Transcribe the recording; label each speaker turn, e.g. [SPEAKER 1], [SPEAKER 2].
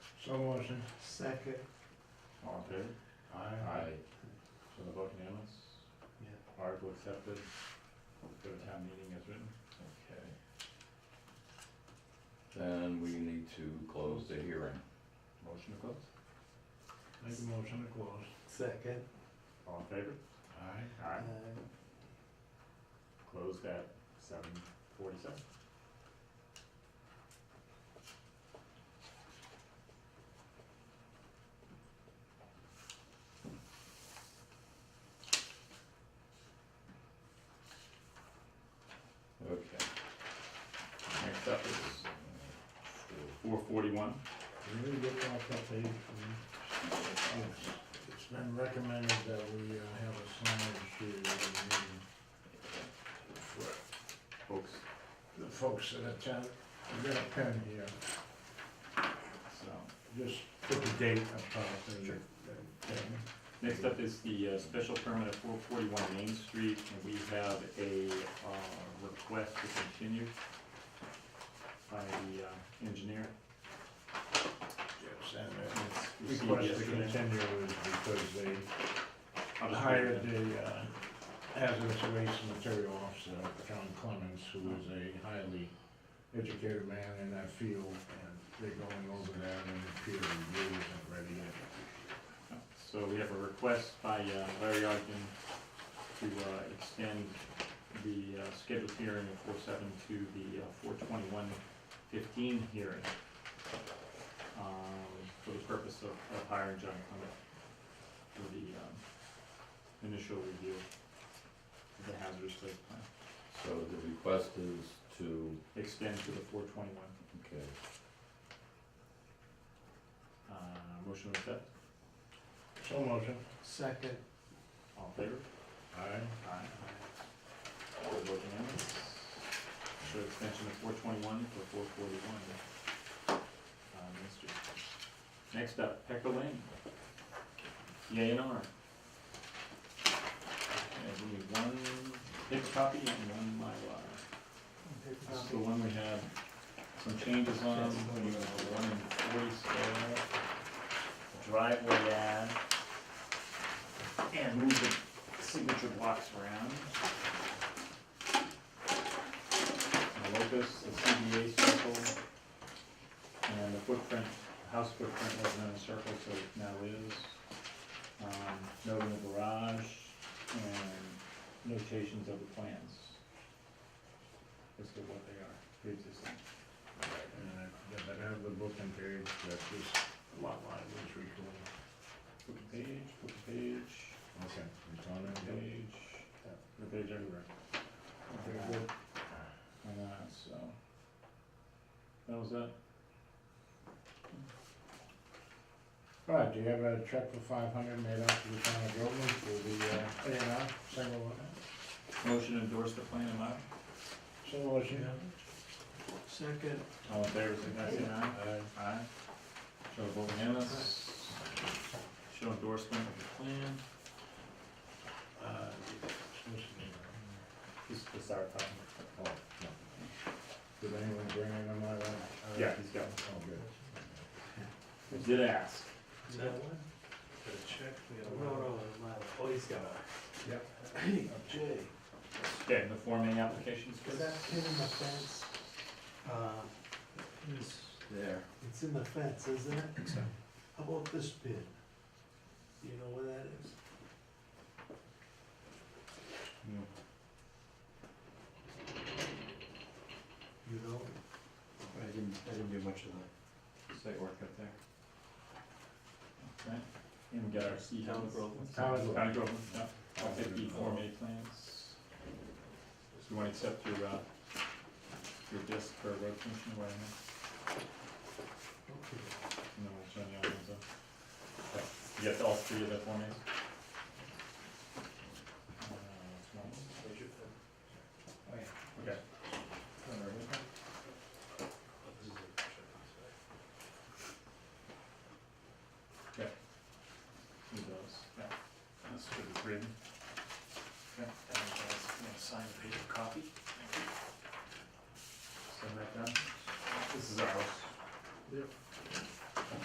[SPEAKER 1] motion.
[SPEAKER 2] Second.
[SPEAKER 3] All in favor? So the vote unanimous,
[SPEAKER 1] Yeah.
[SPEAKER 3] article accepted, go to town meeting as written.
[SPEAKER 4] Okay. Then we need to close the hearing.
[SPEAKER 3] Motion to close?
[SPEAKER 1] Make a motion to close.
[SPEAKER 2] Second.
[SPEAKER 3] All in favor?
[SPEAKER 1] Aye.
[SPEAKER 3] Aye.
[SPEAKER 2] Uh,
[SPEAKER 3] Closed at seven forty-seven.
[SPEAKER 4] Okay.
[SPEAKER 3] Next up is
[SPEAKER 4] uh,
[SPEAKER 3] four forty-one.
[SPEAKER 1] Really get off that page. It's been recommended that we uh, have a signage sheet every meeting for
[SPEAKER 3] Folks,
[SPEAKER 1] the folks that attend. I've got a pen here,
[SPEAKER 3] so,
[SPEAKER 1] just put the date up top. there.
[SPEAKER 3] Sure.
[SPEAKER 1] Okay.
[SPEAKER 3] next up is the uh, special permit at four forty-one Main Street, and we have a, uh, request to continue by the uh, engineer.
[SPEAKER 1] Yes, and uh,
[SPEAKER 3] It's received
[SPEAKER 1] request to
[SPEAKER 3] yesterday.
[SPEAKER 1] continue is because they
[SPEAKER 3] I'll just read
[SPEAKER 1] hired
[SPEAKER 3] it.
[SPEAKER 1] a uh, hazardous waste material officer, John Clemens, who is a highly educated man in that field, and they're going over that and peer review isn't ready yet.
[SPEAKER 3] So we have a request by uh, Larry Ogden to uh, extend the uh, scheduled hearing of four seven to the uh, four twenty-one fifteen hearing um, for the purpose of of hiring John Clement for the um, initial review of the hazardous waste plan,
[SPEAKER 4] So the request is to,
[SPEAKER 3] extend to the four twenty-one.
[SPEAKER 4] okay,
[SPEAKER 3] uh, Motion to accept,
[SPEAKER 1] So motion.
[SPEAKER 2] Second.
[SPEAKER 3] all in favor?
[SPEAKER 1] Aye.
[SPEAKER 3] Aye. All voting unanimous. So extension of four twenty-one for four forty-one. Uh, Next up, Pecker Lane. Yay and R. And we need one big copy and one Mylar. This is the one we had some changes on, we have a one in forty scale, driveway add. And move the signature blocks around. A locus, a CBA circle, and the footprint, house footprint wasn't in a circle, so it now is. Um, note in the garage, and notations of the plans. As to what they are, pre-existing.
[SPEAKER 1] And I- if I have the book and page that this lot line was recorded.
[SPEAKER 3] Book and page, book and page,
[SPEAKER 1] Okay. It's on
[SPEAKER 3] book
[SPEAKER 1] that
[SPEAKER 3] and
[SPEAKER 1] page.
[SPEAKER 3] page, the page everywhere.
[SPEAKER 1] Very good.
[SPEAKER 3] And, uh, so, that was that.
[SPEAKER 1] All right, do you have a check for five hundred made out to the town of Groveland for the uh, A and R, single one?
[SPEAKER 3] Motion to endorse the plan, am I?
[SPEAKER 1] So motion.
[SPEAKER 2] Second.
[SPEAKER 3] All in favor, signify by saying aye. Aye. Show vote unanimous. Show endorsement of the plan.
[SPEAKER 1] Uh, supposed to be, uh,
[SPEAKER 3] This is the sour copy.
[SPEAKER 1] Oh, no. Did anyone bring in a Mylar?
[SPEAKER 3] Yeah, he's got
[SPEAKER 1] Oh, good.
[SPEAKER 3] I Did ask.
[SPEAKER 2] Is that one? No, no, my, oh, he's got a.
[SPEAKER 1] Yep.
[SPEAKER 2] Hey, Jay,
[SPEAKER 3] Okay, the Form A applications.
[SPEAKER 2] is that pin in the fence? Uh, It's,
[SPEAKER 4] there.
[SPEAKER 2] it's in the fence, isn't it? How about this pin? Do you know where that is? You know?
[SPEAKER 5] I didn't, I didn't do much of the site work up there.
[SPEAKER 3] Okay. And we got our C.
[SPEAKER 5] Town of Groveland.
[SPEAKER 1] Town of Groveland.
[SPEAKER 3] Town of Groveland, yeah. All fifty Form A plans. So you wanna accept your, uh, your disc for road commission right now?
[SPEAKER 2] Okay.
[SPEAKER 3] And then we'll turn the other ones up. Okay. You got all three of the Form As? Uh, one.
[SPEAKER 5] Oh, yeah.
[SPEAKER 3] Okay. Need those? Yeah. That's for the grid. Okay. sign the paper copy. Send that down. This is ours.
[SPEAKER 1] Yep.